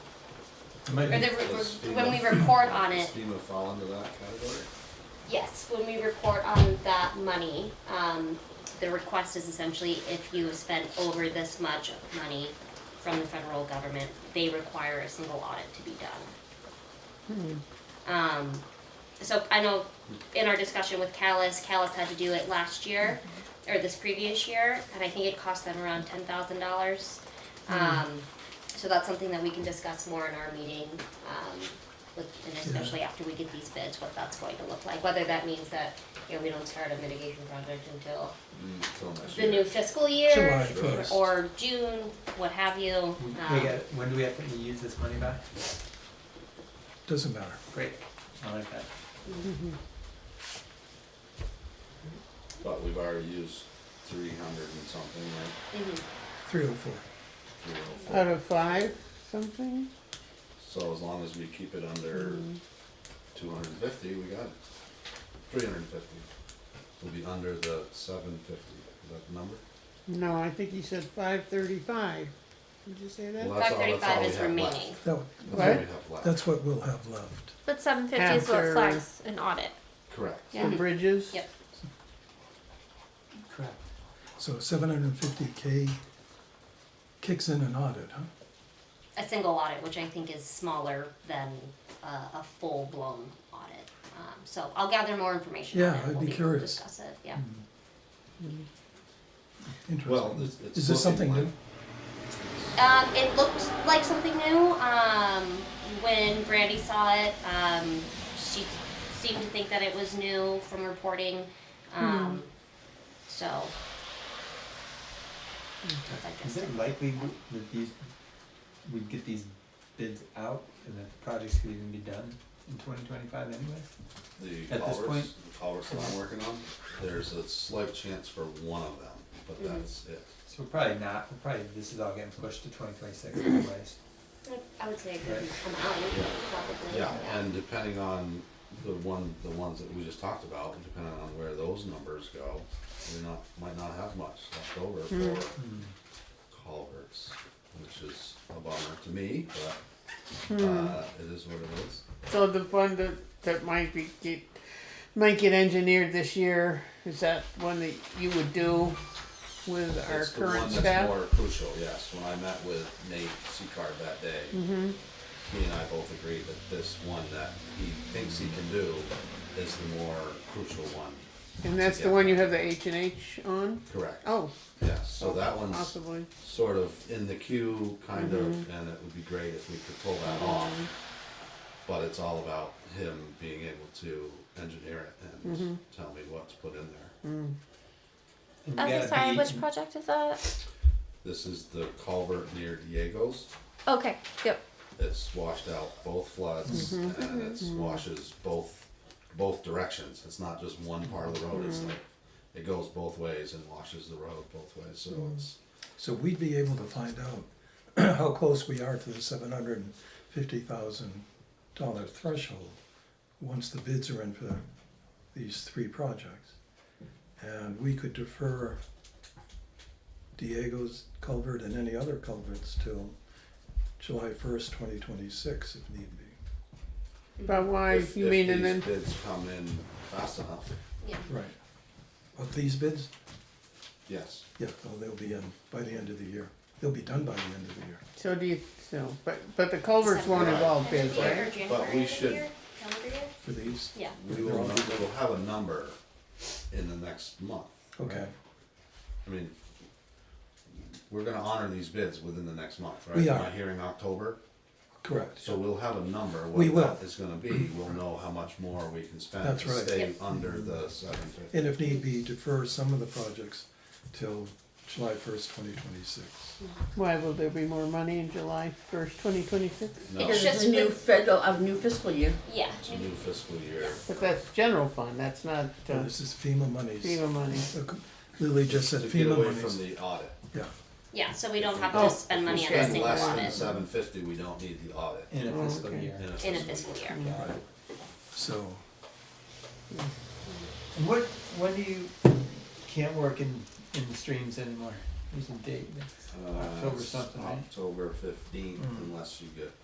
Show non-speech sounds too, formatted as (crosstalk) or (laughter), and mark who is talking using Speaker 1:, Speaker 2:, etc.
Speaker 1: Or the,
Speaker 2: Does
Speaker 1: when we
Speaker 2: FEMA-
Speaker 1: report on
Speaker 2: Does
Speaker 1: it,
Speaker 2: FEMA fall into that category?
Speaker 1: yes, when we report on that money, um, the request is essentially if you have spent over this much money from the federal government, they require a single audit to be done. Um, so I know in our discussion with Callis, Callis had to do it last year, or this previous year, and I think it cost them around ten thousand dollars. Um, so that's something that we can discuss more in our meeting, um, with, and especially after we get these bids, what that's going to look like, whether that means that, you know, we don't start a mitigation project until
Speaker 2: Mm, till next
Speaker 1: the new
Speaker 2: year.
Speaker 1: fiscal
Speaker 3: July
Speaker 1: year,
Speaker 3: first.
Speaker 1: or June, what have you,
Speaker 4: We
Speaker 1: um,
Speaker 4: got, when do we have to use this money back?
Speaker 3: Doesn't matter.
Speaker 4: Great, I like that.
Speaker 2: But we've already used three hundred and something, right?
Speaker 1: mhm.
Speaker 3: Three oh four.
Speaker 2: Three oh four.
Speaker 5: Out of five, something?
Speaker 2: So as long as we keep it under two hundred and fifty, we got it. Three hundred and fifty. We'll be under the seven fifty, is that the number?
Speaker 5: No, I think he said five thirty-five. Did you say that?
Speaker 2: Well, that's
Speaker 1: five
Speaker 2: all- that's all
Speaker 1: thirty-five
Speaker 2: we
Speaker 1: is
Speaker 2: have left.
Speaker 1: remaining.
Speaker 3: That, one-
Speaker 2: That's all we
Speaker 5: What?
Speaker 2: have left.
Speaker 3: that's what we'll have left.
Speaker 6: But seven fifty is what
Speaker 5: After-
Speaker 6: flags an audit.
Speaker 2: Correct.
Speaker 6: Yeah.
Speaker 5: The bridges?
Speaker 1: Yep.
Speaker 4: Correct.
Speaker 3: So seven hundred and fifty K kicks in an audit, huh?
Speaker 1: a single audit, which I think is smaller than uh, a full blown audit. Um, so I'll gather more information.
Speaker 3: Yeah,
Speaker 1: on it.
Speaker 3: I'd
Speaker 1: we'll
Speaker 3: be
Speaker 1: able to
Speaker 3: curious.
Speaker 1: Discuss it. Yeah.
Speaker 2: Well,
Speaker 3: Interesting.
Speaker 2: it's, it's
Speaker 3: Is this
Speaker 2: looking
Speaker 3: something
Speaker 2: like-
Speaker 3: new?
Speaker 1: Um, it looked like something new um, when Brandy saw it. Um, she seemed to think that it was new from reporting. Um, So
Speaker 4: Is it likely that these, we'd get these bids out and that the projects could even be done in twenty twenty-five anyways?
Speaker 2: the
Speaker 4: At this
Speaker 2: culverts,
Speaker 4: point?
Speaker 2: the culverts that I'm working on, there's a slight chance for one of them, but
Speaker 1: Mhm.
Speaker 2: that's it.
Speaker 4: So we're probably not, we're probably, this is all getting pushed to twenty (coughs) twenty-six anyways.
Speaker 1: I would say a
Speaker 4: good
Speaker 1: good
Speaker 4: Right.
Speaker 1: amount,
Speaker 2: Yeah.
Speaker 1: probably.
Speaker 2: Yeah, and depending on the one, the ones that we just talked about, depending on where those numbers go, we not, might not have much left over
Speaker 5: Hmm.
Speaker 2: for culverts, which is a bummer to me, but,
Speaker 5: Hmm.
Speaker 2: uh, it is what it is.
Speaker 5: So the one that, that might be, get, might get engineered this year, is that one that you would do with our
Speaker 2: It's the one
Speaker 5: current
Speaker 2: that's
Speaker 5: staff?
Speaker 2: more crucial, yes, when I met with Nate Seacard that day,
Speaker 5: Mm-hmm.
Speaker 2: he and I both agreed that this one that he thinks he can do is the more crucial one,
Speaker 5: And that's the
Speaker 2: Yeah.
Speaker 5: one you have the H and H on?
Speaker 2: correct?
Speaker 5: Oh,
Speaker 2: Yes, so that one's
Speaker 5: possibly.
Speaker 2: sort of in the queue, kind of,
Speaker 5: Mm-hmm.
Speaker 2: and it would be great if we could pull that off. But it's all about him being able to engineer it
Speaker 5: Mm-hmm.
Speaker 2: and tell me what to put in there.
Speaker 4: And we
Speaker 6: That's
Speaker 4: gotta
Speaker 6: sorry,
Speaker 4: be-
Speaker 6: which project is that?
Speaker 2: This is the culvert near Diego's.
Speaker 6: Okay, yep.
Speaker 2: It's washed out both floods
Speaker 5: Mm-hmm.
Speaker 2: and it washes both, both directions. It's not just one part of the road,
Speaker 5: Mm-hmm.
Speaker 2: it's like, it goes both ways and washes the road both ways, so
Speaker 5: Mm-hmm.
Speaker 2: it's,
Speaker 3: So we'd be able to find out (clears throat) how close we are to the seven hundred and fifty thousand dollar threshold once the bids are in for these three projects. And we could defer Diego's culvert and any other culverts till July first, twenty twenty-six if need be.
Speaker 5: But why,
Speaker 2: if
Speaker 5: you
Speaker 2: if
Speaker 5: mean, and then,
Speaker 2: these bids come in fast enough,
Speaker 1: yeah.
Speaker 3: Right. Of these bids?
Speaker 2: yes.
Speaker 3: Yeah, well, they'll be in by the end of the year. They'll be done by the end of the year.
Speaker 5: so do you, so, but, but the culverts won't
Speaker 2: Right.
Speaker 5: involve
Speaker 1: End of
Speaker 5: bids,
Speaker 1: the year or
Speaker 5: right?
Speaker 1: January
Speaker 2: we
Speaker 1: of the
Speaker 2: should-
Speaker 1: year? Calendar year?
Speaker 3: For these?
Speaker 1: Yeah.
Speaker 2: We will, we'll have a number in the next month.
Speaker 3: Okay.
Speaker 2: I mean, we're gonna honor these bids within the next month, right?
Speaker 3: We are.
Speaker 2: Am I hearing October?
Speaker 3: Correct.
Speaker 2: So we'll have a number,
Speaker 3: We
Speaker 2: what that
Speaker 3: will.
Speaker 2: is gonna be, we'll know how much more we can spend
Speaker 3: That's
Speaker 2: to
Speaker 3: right.
Speaker 2: stay
Speaker 1: Yep.
Speaker 2: under the seven fifty.
Speaker 3: And if need be, defer some of the projects till July first, twenty twenty-six.
Speaker 5: Why, will there be more money in July first, twenty twenty-six?
Speaker 2: No,
Speaker 1: It's
Speaker 2: it's
Speaker 7: Because
Speaker 1: just
Speaker 7: it's a new
Speaker 1: been-
Speaker 7: federal, of new fiscal year.
Speaker 1: Yeah.
Speaker 2: a new fiscal year.
Speaker 5: But that's general fund, that's not uh,
Speaker 3: This is FEMA monies.
Speaker 5: FEMA money.
Speaker 3: Look, Lily just said
Speaker 2: To get
Speaker 3: FEMA
Speaker 2: away from
Speaker 3: monies.
Speaker 2: the audit.
Speaker 3: Yeah,
Speaker 1: Yeah, so we don't have to
Speaker 5: Oh,
Speaker 1: spend
Speaker 2: If we
Speaker 1: money on a
Speaker 2: spend
Speaker 1: single
Speaker 2: less than
Speaker 1: audit
Speaker 2: seven fifty, we don't need the audit.
Speaker 4: In a
Speaker 5: Oh,
Speaker 4: fiscal
Speaker 5: okay.
Speaker 4: year.
Speaker 1: in a fiscal year.
Speaker 2: Got it.
Speaker 3: so,
Speaker 4: And what, when do you, can't work in, in the streams anymore? There's a date, that's
Speaker 2: Uh,
Speaker 4: October
Speaker 2: it's
Speaker 4: something, right?
Speaker 2: October fifteenth,
Speaker 4: Mm.
Speaker 2: unless you get